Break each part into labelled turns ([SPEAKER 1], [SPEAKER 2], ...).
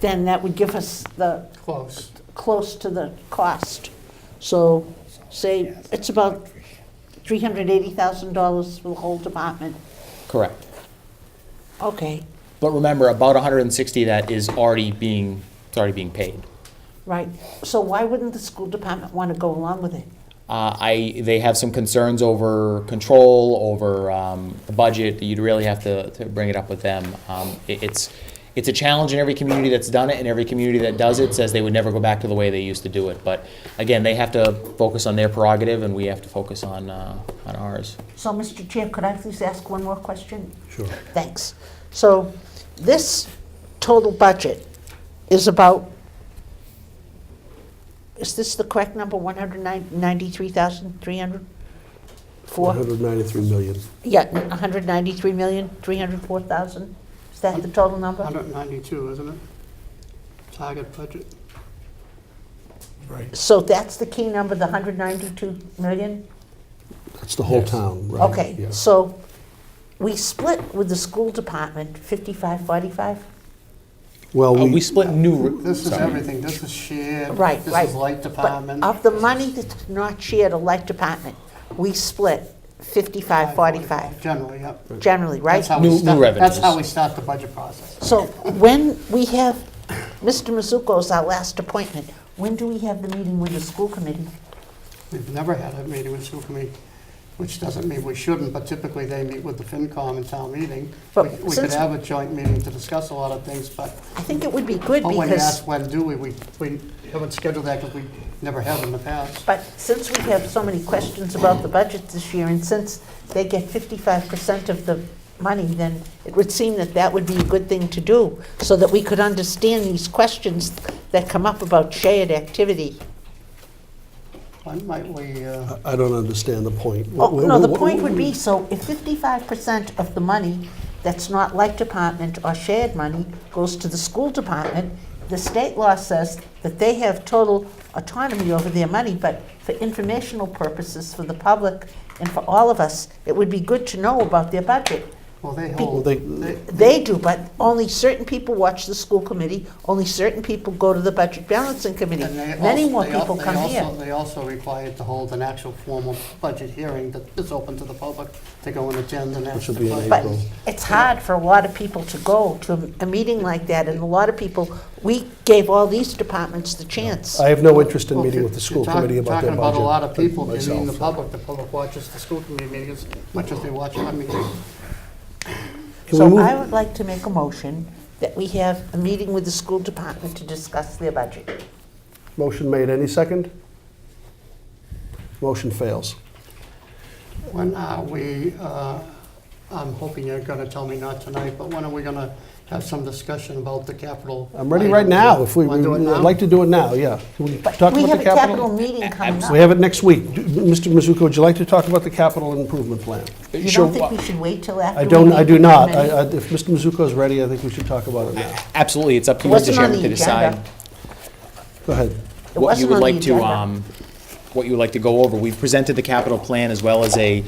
[SPEAKER 1] then that would give us the,
[SPEAKER 2] Close.
[SPEAKER 1] close to the cost. So say, it's about $380,000 for the whole department.
[SPEAKER 3] Correct.
[SPEAKER 1] Okay,
[SPEAKER 3] But remember, about 160 of that is already being, it's already being paid.
[SPEAKER 1] right. So why wouldn't the school department want to go along with it?
[SPEAKER 3] Uh, I, they have some concerns over control, over um, the budget. You'd really have to, to bring it up with them. Um, it, it's, it's a challenge in every community that's done it, and every community that does it says they would never go back to the way they used to do it. But again, they have to focus on their prerogative, and we have to focus on, uh, on ours.
[SPEAKER 1] So, Mr. Chair, could I please ask one more question?
[SPEAKER 4] Sure.
[SPEAKER 1] Thanks. So this total budget is about, is this the correct number, 193,304?
[SPEAKER 4] 193 million.
[SPEAKER 1] Yeah, 193,304,000? Is that the total number?
[SPEAKER 2] 192, isn't it? Target budget.
[SPEAKER 4] Right.
[SPEAKER 1] So that's the key number, the 192 million?
[SPEAKER 4] That's the whole
[SPEAKER 3] Yes.
[SPEAKER 4] town, right?
[SPEAKER 1] Okay,
[SPEAKER 4] yeah.
[SPEAKER 1] so we split with the school department 55, 45?
[SPEAKER 4] Well,
[SPEAKER 3] Uh, we
[SPEAKER 4] we,
[SPEAKER 3] split new.
[SPEAKER 2] This is
[SPEAKER 3] sorry.
[SPEAKER 2] everything, this is shared.
[SPEAKER 1] Right, right.
[SPEAKER 2] This is light department.
[SPEAKER 1] But of the money that's not shared, a light department, we split 55, 45,
[SPEAKER 2] Generally, yep.
[SPEAKER 1] generally,
[SPEAKER 2] That's
[SPEAKER 1] right?
[SPEAKER 2] how we
[SPEAKER 3] New- new
[SPEAKER 2] start- That's how
[SPEAKER 3] revenues.
[SPEAKER 2] we start the budget process.
[SPEAKER 1] So when we have, Mr. Mizuko's our last appointment, when do we have the meeting with the school committee?
[SPEAKER 2] We've never had a meeting with school committee, which doesn't mean we shouldn't, but typically they meet with the FinCom and town meeting. We
[SPEAKER 1] But
[SPEAKER 2] we could
[SPEAKER 1] since-
[SPEAKER 2] have a joint meeting to discuss a lot of things, but
[SPEAKER 1] I think it would be good
[SPEAKER 2] but Oh, when you
[SPEAKER 1] because,
[SPEAKER 2] ask when do we, we, we haven't scheduled that because we never have in the past.
[SPEAKER 1] but since we have so many questions about the budget this year, and since they get 55% of the money, then it would seem that that would be a good thing to do, so that we could understand these questions that come up about shared activity.
[SPEAKER 2] When might we, uh,
[SPEAKER 4] I- I don't understand the point.
[SPEAKER 1] Oh,
[SPEAKER 4] Wh- wh-
[SPEAKER 1] no, the
[SPEAKER 4] wh-
[SPEAKER 1] point
[SPEAKER 4] wh-
[SPEAKER 1] would be, so if fifty-five percent of the money that's not like department or shared money goes to the school department, the state law says that they have total autonomy over their money, but for informational purposes for the public and for all of us, it would be good to know about their budget.
[SPEAKER 2] well, they
[SPEAKER 4] Well,
[SPEAKER 2] hold,
[SPEAKER 4] they-
[SPEAKER 2] they,
[SPEAKER 1] They do, but only certain people watch the school committee, only certain people go to the budget balancing committee.
[SPEAKER 2] And they
[SPEAKER 1] Many
[SPEAKER 2] also-
[SPEAKER 1] more
[SPEAKER 2] they al-
[SPEAKER 1] people
[SPEAKER 2] they
[SPEAKER 1] come
[SPEAKER 2] also-
[SPEAKER 1] here.
[SPEAKER 2] They also required to hold an actual formal budget hearing that is open to the public to go and attend and ask
[SPEAKER 4] should
[SPEAKER 2] the
[SPEAKER 4] be in
[SPEAKER 2] questions.
[SPEAKER 1] But
[SPEAKER 4] April.
[SPEAKER 1] it's hard for a lot of people to go to a- a meeting like that, and a lot of people, we gave all these departments the chance.
[SPEAKER 4] I have no interest in
[SPEAKER 1] Oh,
[SPEAKER 2] Well, if
[SPEAKER 4] meeting
[SPEAKER 2] you-
[SPEAKER 4] with the
[SPEAKER 2] if
[SPEAKER 4] school
[SPEAKER 2] you're talk-
[SPEAKER 4] committee about their budget.
[SPEAKER 2] Talking about a lot of
[SPEAKER 4] but
[SPEAKER 2] people, you mean the
[SPEAKER 4] myself.
[SPEAKER 2] public, the public watches the school committee meetings much as they watch our meetings.
[SPEAKER 4] Can we
[SPEAKER 1] So
[SPEAKER 4] move-
[SPEAKER 1] I would like to make a motion that we have a meeting with the school department to discuss their budget.
[SPEAKER 4] Motion made, any second? Motion fails.
[SPEAKER 2] When are we, uh, I'm hoping you're going to tell me not tonight, but when are we going to have some discussion about the capital?
[SPEAKER 4] I'm ready right now, if we,
[SPEAKER 2] Want to do it
[SPEAKER 4] I'd
[SPEAKER 2] now?
[SPEAKER 4] like to do it now, yeah. Can we
[SPEAKER 1] But
[SPEAKER 4] talk
[SPEAKER 1] we
[SPEAKER 4] about
[SPEAKER 1] have
[SPEAKER 4] the
[SPEAKER 1] a capital meeting coming
[SPEAKER 4] We
[SPEAKER 1] up.
[SPEAKER 4] have it next week. Do- Mr. Mizuko, would you like to talk about the capital improvement plan?
[SPEAKER 1] You
[SPEAKER 3] Sure,
[SPEAKER 1] don't think we should wait till after?
[SPEAKER 4] I
[SPEAKER 1] we
[SPEAKER 4] don't, I
[SPEAKER 1] meet
[SPEAKER 4] do
[SPEAKER 1] with the
[SPEAKER 4] not. I-
[SPEAKER 1] committee?
[SPEAKER 4] I- If Mr. Mizuko is ready, I think we should talk about it now.
[SPEAKER 3] Absolutely, it's up to
[SPEAKER 1] It
[SPEAKER 3] you, Mr.
[SPEAKER 1] wasn't on the
[SPEAKER 3] Chairman, to decide.
[SPEAKER 1] agenda.
[SPEAKER 4] Go ahead.
[SPEAKER 1] It
[SPEAKER 3] what
[SPEAKER 1] wasn't
[SPEAKER 3] you would
[SPEAKER 1] on the
[SPEAKER 3] like to,
[SPEAKER 1] agenda.
[SPEAKER 3] um, what you would like to go over. We've presented the capital plan as well as a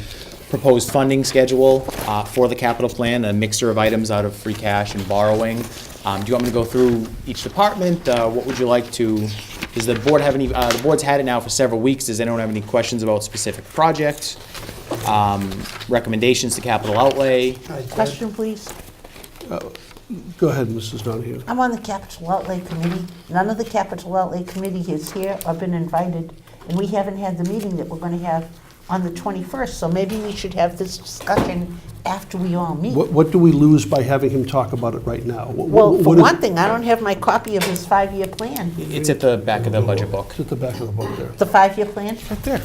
[SPEAKER 3] proposed funding schedule uh, for the capital plan, a mixture of items out of free cash and borrowing. Um, Do you want me to go through each department? Uh, What would you like to, does the board have any, uh, the board's had it now for several weeks. Does anyone have any questions about specific projects? Um, Recommendations to capital outlay?
[SPEAKER 1] Question, please.
[SPEAKER 4] Go ahead, Mrs. Donahue.
[SPEAKER 1] I'm on the capital outlay committee. None of the capital outlay committee is here or been invited, and we haven't had the meeting that we're going to have on the 21st, so maybe we should have this discussion after we all meet.
[SPEAKER 4] What, what do we lose by having him talk about it right now? Wh- wh-
[SPEAKER 1] Well, for
[SPEAKER 4] what is-
[SPEAKER 1] one thing, I don't have my copy of his five-year plan,
[SPEAKER 3] It's at the back of the budget book.
[SPEAKER 4] It's at the back of the book there.
[SPEAKER 1] the five-year plan.
[SPEAKER 4] Right there.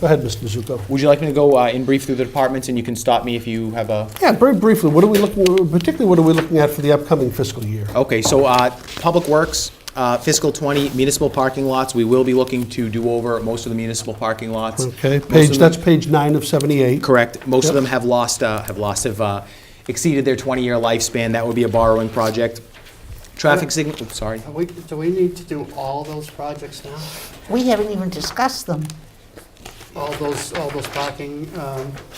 [SPEAKER 4] Go ahead, Mr. Mizuko.
[SPEAKER 3] Would you like me to go uh, in brief through the departments and you can stop me if you have a
[SPEAKER 4] Yeah, very briefly, what are we looking, particularly what are we looking at for the upcoming fiscal year?
[SPEAKER 3] Okay, so uh, Public Works, uh, fiscal '20 municipal parking lots, we will be looking to do over most of the municipal parking lots.
[SPEAKER 4] Okay,
[SPEAKER 3] Most of
[SPEAKER 4] page,
[SPEAKER 3] them-
[SPEAKER 4] that's page nine of 78.
[SPEAKER 3] Correct. Most of
[SPEAKER 4] Yep.
[SPEAKER 3] them have lost, uh, have lost, have uh, exceeded their 20-year lifespan. That would be a borrowing project. Traffic signal, oops, sorry.
[SPEAKER 2] Are we- Do we need to do all those projects now?
[SPEAKER 1] We haven't even discussed them.
[SPEAKER 2] All those, all those parking, um,